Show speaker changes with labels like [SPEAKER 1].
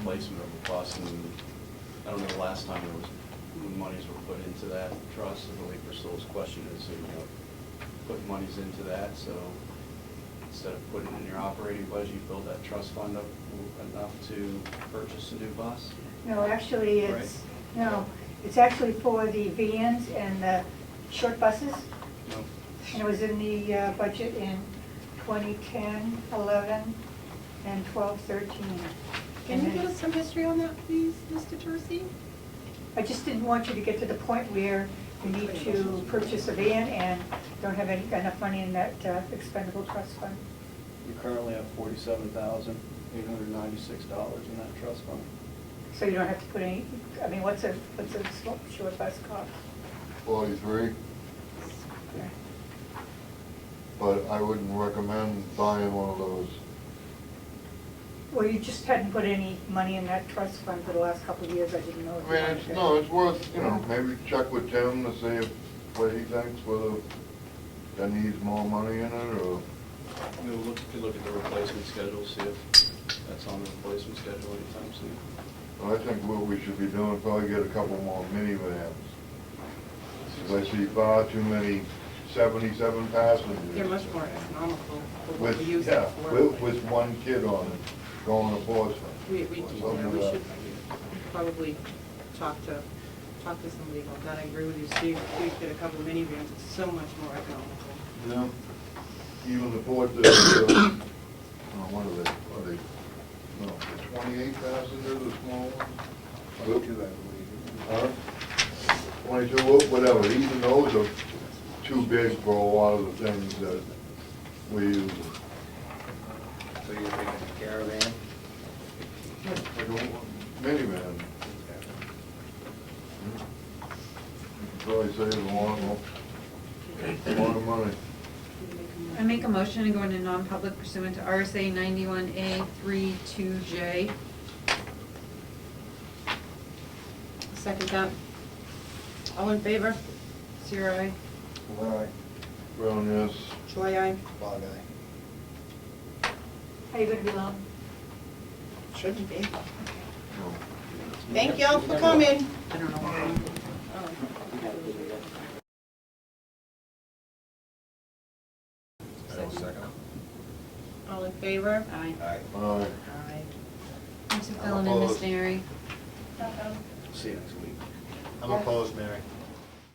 [SPEAKER 1] replacement of a bus, and I don't know, the last time there was, when monies were put into that trust, I believe Priscilla's question is, you know, put monies into that, so instead of putting it in your operating budget, you build that trust fund up enough to purchase a new bus?
[SPEAKER 2] No, actually, it's, no, it's actually for the vans and the short buses,
[SPEAKER 1] No?
[SPEAKER 2] and it was in the uh, budget in 2010, 11, and 12, 13.
[SPEAKER 3] Can you
[SPEAKER 2] And
[SPEAKER 3] give
[SPEAKER 2] then-
[SPEAKER 3] us some history on that, please, Mr. Tercey?
[SPEAKER 2] I just didn't want you to get to the point where you need to purchase a van and don't have any, enough money in that uh, expendable trust fund.
[SPEAKER 1] You currently have forty-seven thousand, eight hundred ninety-six dollars in that trust fund.
[SPEAKER 2] So you don't have to put any, I mean, what's a, what's a small- short bus cost?
[SPEAKER 4] forty-three, but I wouldn't recommend buying one of those.
[SPEAKER 2] Well, you just hadn't put any money in that trust fund for the last couple of years, I didn't know.
[SPEAKER 4] I
[SPEAKER 2] if you
[SPEAKER 4] mean,
[SPEAKER 2] wanted
[SPEAKER 4] it's,
[SPEAKER 2] to.
[SPEAKER 4] no, it's worth, you know, maybe check with Tim to see if, what he thinks, whether that needs more money in it, or,
[SPEAKER 1] We'll look, if you look at the replacement schedule, see if that's on the replacement schedule anytime soon.
[SPEAKER 4] but I think what we should be doing, is probably get a couple more minivans. Because I see far too many seventy-seven passengers.
[SPEAKER 3] They're much more economical for what we
[SPEAKER 4] With,
[SPEAKER 3] use it
[SPEAKER 4] yeah,
[SPEAKER 3] for.
[SPEAKER 4] with, with one kid on it, going to Portsmouth.
[SPEAKER 3] We, we, do,
[SPEAKER 4] Something
[SPEAKER 3] yeah, we
[SPEAKER 4] like
[SPEAKER 3] should
[SPEAKER 4] that.
[SPEAKER 3] probably talk to, talk to somebody about that. I agree with you, Steve. We could get a couple of minivans, it's so much more economical.
[SPEAKER 4] Yeah, even the port, the, uh, oh, what are they, are they, no, the twenty-eight passenger, the small one? Twenty-two, I believe. Huh? Twenty-two, wha- whatever, even those are too big for a lot of the things that we use.
[SPEAKER 5] So you're thinking caravan?
[SPEAKER 4] Like a minivan. Hmm? Probably saves a lot, of- a lot of money.
[SPEAKER 6] I make a motion to go into non-public pursuant to RSA ninety-one A three two J.
[SPEAKER 3] Second that. All in favor?
[SPEAKER 6] Zero I.
[SPEAKER 5] Right.
[SPEAKER 4] Brown, yes.
[SPEAKER 3] Joy, aye.
[SPEAKER 5] Bog
[SPEAKER 2] Are you gonna be long?
[SPEAKER 3] Shouldn't be.
[SPEAKER 4] No.
[SPEAKER 3] Thank y'all for coming. Oh,
[SPEAKER 6] I don't know.
[SPEAKER 5] I will second.
[SPEAKER 3] All in favor?
[SPEAKER 6] Aye.
[SPEAKER 5] All
[SPEAKER 4] Aye.
[SPEAKER 5] right.
[SPEAKER 3] Aye.
[SPEAKER 6] Mr. Fallon and Miss
[SPEAKER 4] opposed.
[SPEAKER 6] Neri.
[SPEAKER 5] See you next week. I'm opposed, Mary.